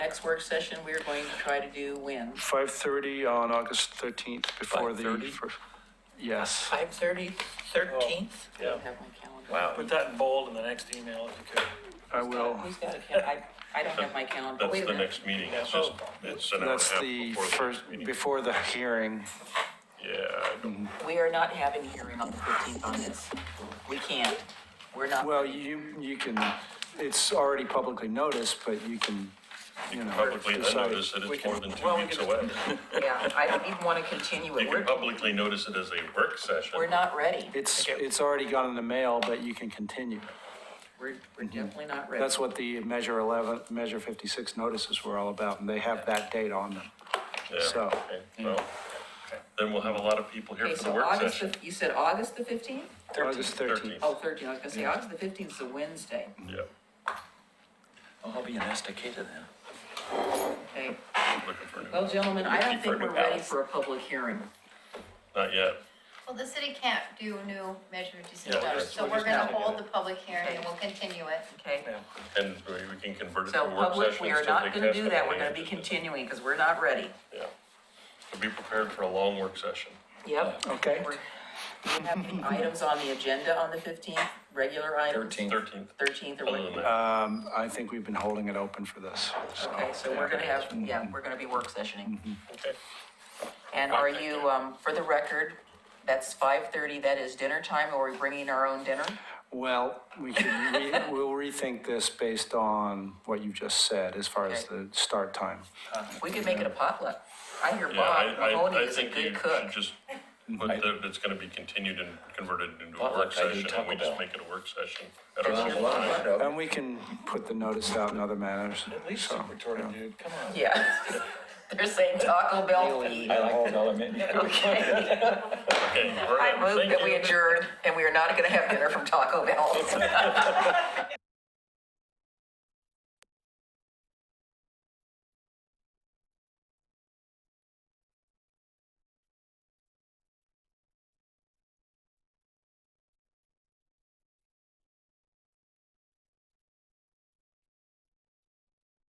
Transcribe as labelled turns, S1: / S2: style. S1: next work session, we're going to try to do when?
S2: 5:30 on August 13th before the,
S3: 5:30?
S2: fir- yes.
S1: Five thirty, thirteenth? I
S4: Yeah.
S1: don't have my calendar.
S3: Wow.
S4: Put that in bold in the next email if you could.
S2: I will.
S1: Who's got a cal, I, I don't have my calendar.
S5: That's
S1: Wait a
S5: the
S1: minute. Oh,
S5: next meeting, it's just, it's an hour and a
S2: That's
S5: half
S2: the
S5: before the
S2: first,
S5: next meeting.
S2: before the hearing.
S5: Yeah, I don't-
S1: We are not having a hearing on the fifteenth on this. We can't. We're not.
S2: Well, you, you can, it's already publicly noticed, but you can, you know.
S5: publicly
S2: decide.
S5: notice that
S4: we
S5: it's
S4: can-
S5: more than two
S4: well, we
S5: weeks
S4: can-
S5: away.
S1: Yeah, I don't even want to continue
S5: You
S1: it.
S5: can
S1: We're,
S5: publicly notice it as a work session.
S1: we're not ready.
S2: It's,
S4: Okay.
S2: it's already gone in the mail, but you can continue.
S1: We're, we're definitely not ready.
S2: That's what the Measure 11, Measure 56 notices were all about, and they have that date on them.
S5: Yeah,
S2: so,
S5: okay, well, Then we'll have a lot of people here
S1: Mm. Okay,
S5: for the
S1: so
S5: work
S1: August,
S5: session.
S1: the- you said August the fifteenth?
S2: August 13th.
S1: Oh, thirteen, I was gonna say August the fifteenth is a Wednesday.
S5: Yeah,
S3: I'll be in Estacada then.
S1: Okay,
S5: looking for
S1: well,
S5: new,
S1: gentlemen, I don't
S5: Mm-hmm. Looking for
S1: think
S5: a new
S1: we're ready
S5: house.
S1: for a public hearing.
S5: not yet.
S6: Well, the city can't do new measure
S4: Yeah,
S6: decisions, so
S4: we're
S6: we're
S4: just
S6: gonna
S4: not gonna
S6: hold
S4: do
S6: the public hearing and
S1: Okay.
S6: we'll continue it.
S1: Okay,
S5: And we we can convert it to
S1: so
S5: a work session.
S1: public, we are
S5: still
S1: not
S5: take
S1: gonna do that. We're
S5: testimony
S1: gonna
S5: and
S1: be
S5: just-
S1: continuing because we're not ready.
S5: Yeah. So be prepared for a long work session.
S1: Yep.
S2: Okay.
S1: We're- We have any items on the agenda on the fifteenth, regular items?
S3: 13th.
S5: Thirteenth,
S1: Thirteenth or
S5: other than
S1: what?
S5: that,
S2: Um, I think we've been holding it open for this, so.
S1: Okay, so we're gonna have, yeah, we're gonna be work sessioning.
S5: okay.
S1: And are you, um, for the record, that's five thirty, that is dinner time, or are we bringing our own dinner?
S2: Well, we could, re- we'll rethink this based on what you just said as far as
S1: Okay.
S2: the start time.
S1: We could make it a potluck. I hear
S5: Yeah, I,
S1: Bob
S5: I,
S1: Mahoney
S5: I
S1: is a
S5: think you
S1: good
S5: should
S1: cook.
S5: just put that it's gonna be continued and converted into a
S3: Potluck,
S5: work
S3: I do
S5: session, and
S3: Taco
S5: we just
S3: Bell.
S5: make it a work session. at our normal time.
S2: And we can put the notice out in other manners.
S4: At least
S2: so,
S4: Super Torta,
S2: yeah.
S4: dude, come on.
S1: Yeah. They're saying Taco Bell feed.
S3: I like that.
S1: Okay.
S5: Okay, we're
S1: I
S5: in.
S1: move
S5: Thank
S1: that we
S5: you.
S1: adjourn, and we are not gonna have dinner from Taco Bell.